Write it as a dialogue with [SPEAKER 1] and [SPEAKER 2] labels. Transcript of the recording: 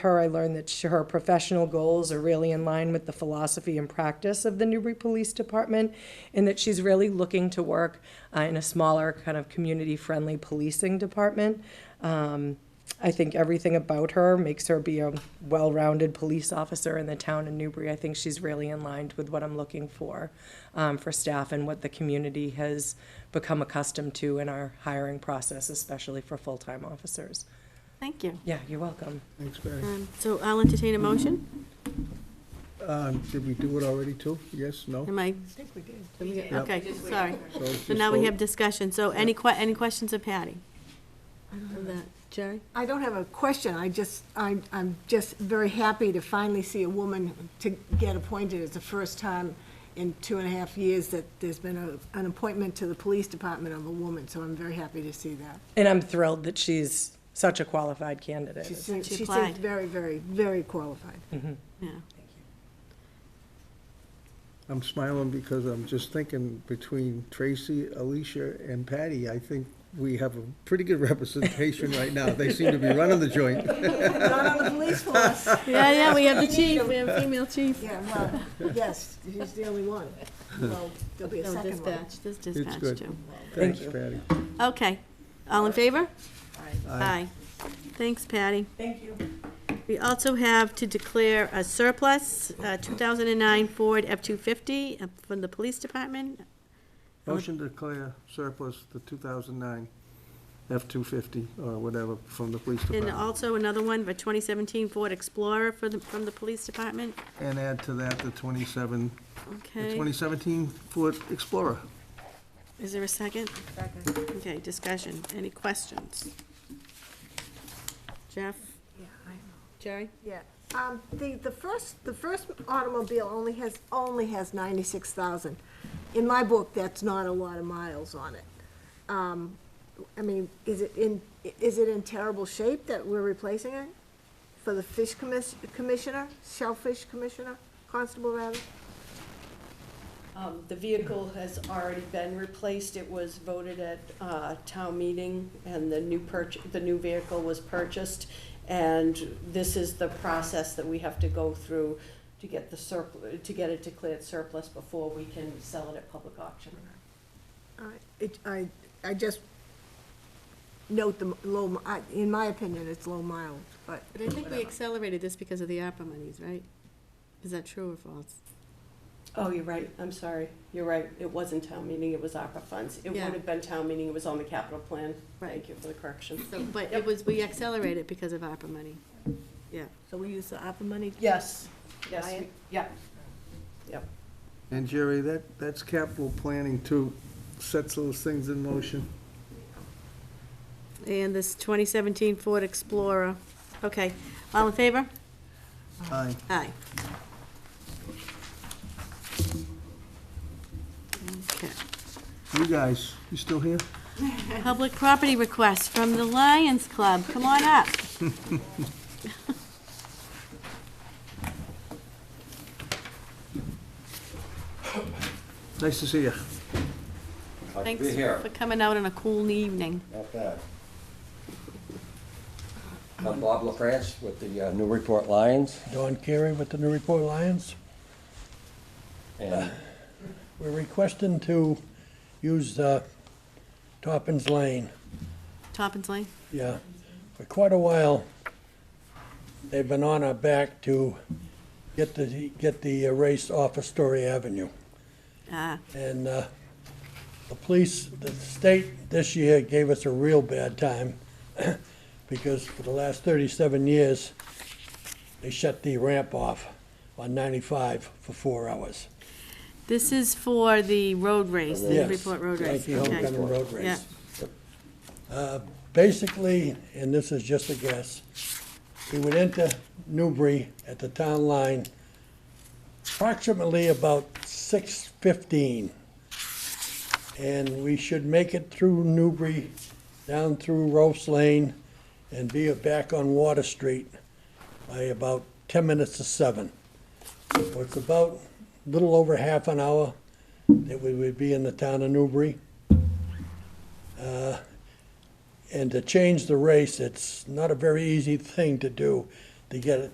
[SPEAKER 1] her, I learned that she- her professional goals are really in line with the philosophy and practice of the Newbury Police Department, and that she's really looking to work uh, in a smaller, kind of community-friendly policing department. Um, I think everything about her makes her be a well-rounded police officer in the town of Newbury. I think she's really in line with what I'm looking for um, for staff and what the community has become accustomed to in our hiring process, especially for full-time officers.
[SPEAKER 2] Thank you.
[SPEAKER 1] Yeah, you're welcome.
[SPEAKER 3] Thanks, Barry.
[SPEAKER 2] Um, So I'll entertain a motion.
[SPEAKER 3] Um, Did we do it already, too? Yes, no?
[SPEAKER 2] Am I,
[SPEAKER 4] I think we did.
[SPEAKER 3] Yep.
[SPEAKER 2] okay, sorry.
[SPEAKER 3] So it's
[SPEAKER 2] So
[SPEAKER 3] just
[SPEAKER 2] now we
[SPEAKER 3] vote.
[SPEAKER 2] have discussion. So any que, any questions of Patty? Of that, Jerry?
[SPEAKER 4] I don't have a question, I just, I'm, I'm just very happy to finally see a woman to get appointed. It's the first time in two and a half years that there's been a, an appointment to the police department of a woman, so I'm very happy to see that.
[SPEAKER 1] And I'm thrilled that she's such a qualified candidate.
[SPEAKER 4] She seems,
[SPEAKER 2] She
[SPEAKER 4] she seems
[SPEAKER 2] applied.
[SPEAKER 4] very, very, very qualified.
[SPEAKER 2] Yeah.
[SPEAKER 3] I'm smiling because I'm just thinking between Tracy, Alicia, and Patty, I think we have a pretty good representation right now. They seem to be running the joint.
[SPEAKER 4] Not on the police force,
[SPEAKER 2] Yeah, yeah, we have the chief, we have a female chief.
[SPEAKER 4] yeah, well, yes, he's the only one. Well, there'll be a
[SPEAKER 2] No,
[SPEAKER 4] second one.
[SPEAKER 2] dispatch, there's
[SPEAKER 3] It's
[SPEAKER 2] dispatch
[SPEAKER 3] good.
[SPEAKER 2] too.
[SPEAKER 1] Thank
[SPEAKER 3] Thanks,
[SPEAKER 1] you.
[SPEAKER 3] Patty.
[SPEAKER 2] Okay. All in favor?
[SPEAKER 3] Aye.
[SPEAKER 2] Thanks, Patty.
[SPEAKER 1] Thank you.
[SPEAKER 2] We also have to declare a surplus, uh, 2009 Ford F-250 uh, from the police department.
[SPEAKER 3] Motion to declare surplus the 2009 F-250 or whatever from the police
[SPEAKER 2] And
[SPEAKER 3] department.
[SPEAKER 2] also another one, for 2017 Ford Explorer for the, from the police department.
[SPEAKER 3] And add to that the 27, the
[SPEAKER 2] Okay.
[SPEAKER 3] 2017 Ford Explorer.
[SPEAKER 2] Is there a second? Second. Okay, discussion. Any questions? Jeff?
[SPEAKER 4] Yeah, I-
[SPEAKER 2] Jerry?
[SPEAKER 4] Yeah, um, the, the first, the first automobile only has, only has ninety-six thousand. In my book, that's not a lot of miles on it. Um, I mean, is it in, is it in terrible shape that we're replacing it? For the fish commis- commissioner, shellfish commissioner, constable rather?
[SPEAKER 5] Um, The vehicle has already been replaced. It was voted at uh, town meeting, and the new purch, the new vehicle was purchased. And this is the process that we have to go through to get the surplus, to get it declared surplus before we can sell it at public auction.
[SPEAKER 4] I, Uh, it, I, I just note the low, mi- I, in my opinion, it's low miles, but.
[SPEAKER 2] But I think we
[SPEAKER 4] whatever.
[SPEAKER 2] accelerated this because of the ARPA monies, right? Is that true or false?
[SPEAKER 5] Oh, you're right. I'm sorry. You're right. It wasn't town meeting. It was ARPA funds. It would
[SPEAKER 2] Yeah.
[SPEAKER 5] have been town meeting. It was on the capital plan.
[SPEAKER 2] Right.
[SPEAKER 5] Thank you for the correction.
[SPEAKER 2] So, But it was, we accelerated because of ARPA money. Yeah.
[SPEAKER 4] So we use the ARPA money?
[SPEAKER 5] Yes, yes,
[SPEAKER 4] Ryan?
[SPEAKER 5] we- yeah. Yep.
[SPEAKER 3] And Jerry, that, that's capital planning too, sets those things in motion.
[SPEAKER 2] And this 2017 Ford Explorer. Okay, all in favor?
[SPEAKER 3] Aye.
[SPEAKER 2] Aye. Okay.
[SPEAKER 3] You guys, you still here?
[SPEAKER 2] Public property request from the Lions Club. Come on up.
[SPEAKER 3] Nice to see you.
[SPEAKER 6] Glad to
[SPEAKER 2] Thanks
[SPEAKER 6] be here.
[SPEAKER 2] for coming out on a cool evening.
[SPEAKER 6] Not bad. I'm Bob LaFrance with the uh, Newburyport Lions,
[SPEAKER 7] Don Carey with the Newburyport Lions.
[SPEAKER 6] and
[SPEAKER 7] Uh, We're requesting to use uh, Toppin's Lane.
[SPEAKER 2] Toppin's Lane?
[SPEAKER 7] Yeah, for quite a while, they've been on our back to get the, get the race off of Story Avenue.
[SPEAKER 2] Ah,
[SPEAKER 7] And uh, the police, the state this year gave us a real bad time because for the last 37 years, they shut the ramp off on 95 for four hours.
[SPEAKER 2] This is for the road race, the
[SPEAKER 7] Yes,
[SPEAKER 2] Newburyport road
[SPEAKER 7] like
[SPEAKER 2] race.
[SPEAKER 7] the
[SPEAKER 2] Okay.
[SPEAKER 7] homecoming road race.
[SPEAKER 2] Yeah.
[SPEAKER 7] Uh, Basically, and this is just a guess, we would enter Newbury at the town line approximately about six fifteen. And we should make it through Newbury, down through Rose Lane, and be back on Water Street by about ten minutes to seven. So it's about a little over half an hour that we would be in the town of Newbury. Uh, And to change the race, it's not a very easy thing to do. to get it